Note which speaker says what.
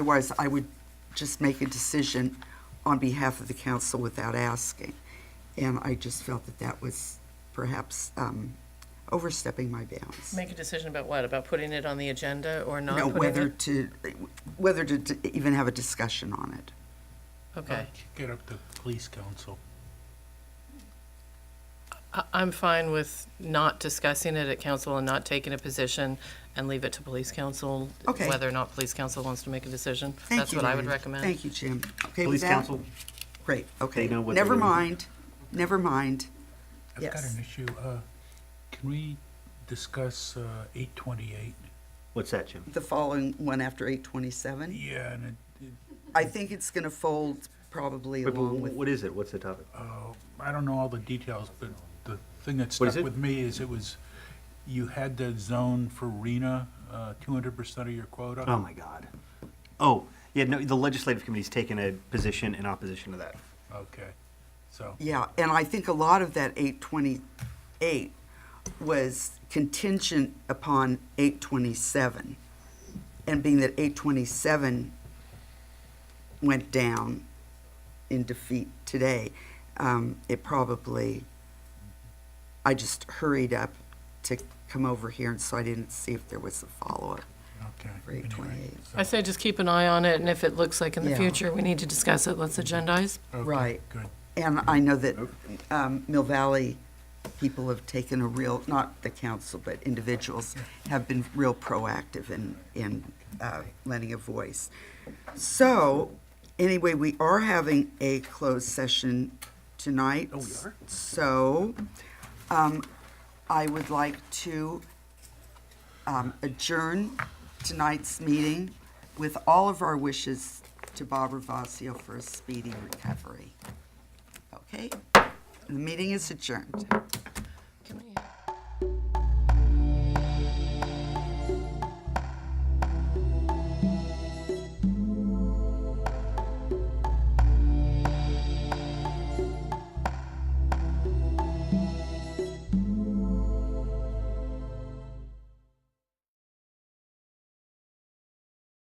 Speaker 1: Otherwise, I would just make a decision on behalf of the council without asking. And I just felt that that was perhaps um, overstepping my bounds.
Speaker 2: Make a decision about what? About putting it on the agenda or not
Speaker 1: No,
Speaker 2: putting
Speaker 1: whether
Speaker 2: it?
Speaker 1: to, whether to d- even have a discussion on it.
Speaker 2: Okay.
Speaker 3: uh, Get up to police council.
Speaker 2: I- I'm fine with not discussing it at council and not taking a position and leave it to police council,
Speaker 1: Okay.
Speaker 2: whether or not police council wants to make a decision.
Speaker 1: Thank
Speaker 2: That's
Speaker 1: you,
Speaker 2: what I would
Speaker 1: Diane.
Speaker 2: recommend.
Speaker 1: Thank you, Jim. Okay with
Speaker 4: Police
Speaker 1: that?
Speaker 4: council,
Speaker 1: Great, okay.
Speaker 4: know what they're
Speaker 1: Never
Speaker 4: gonna do.
Speaker 1: mind, never mind.
Speaker 3: I've got
Speaker 1: Yes.
Speaker 3: an issue. Uh, Can we discuss uh, eight twenty-eight?
Speaker 4: what's that, Jim?
Speaker 1: The following one after 827.
Speaker 3: Yeah, and it, it-
Speaker 1: I think it's going to fold probably
Speaker 4: Wait, but
Speaker 1: along with,
Speaker 4: What is it? What's the topic?
Speaker 3: uh, I don't know all the details, but the thing that
Speaker 4: What is
Speaker 3: stuck
Speaker 4: it?
Speaker 3: with me is it was, you had the zone for RENA, uh, two hundred percent of your quota.
Speaker 4: Oh, my God. Oh, yeah, no, the legislative committee's taken a position in opposition to that.
Speaker 3: Okay, so,
Speaker 1: yeah, and I think a lot of that 828 was contingent upon 827. And being that 827 went down in defeat today, um, it probably, I just hurried up to come over here, and so I didn't see if there was a follow-up
Speaker 3: okay.
Speaker 1: for
Speaker 3: anyway,
Speaker 1: 828.
Speaker 2: I say just keep an eye on it, and if it looks like in the
Speaker 1: Yeah.
Speaker 2: future we need to discuss it, let's agendize.
Speaker 3: okay,
Speaker 1: Right.
Speaker 3: Good.
Speaker 1: And I know that um, Mill Valley people have taken a real, not the council, but individuals have been real proactive in, in uh, lending a voice. So, anyway, we are having a closed session tonight.
Speaker 4: Oh, we are?
Speaker 1: So, um, I would like to um, adjourn tonight's meeting with all of our wishes to Bob Ravasio for a speedy recovery. Okay? The meeting is adjourned.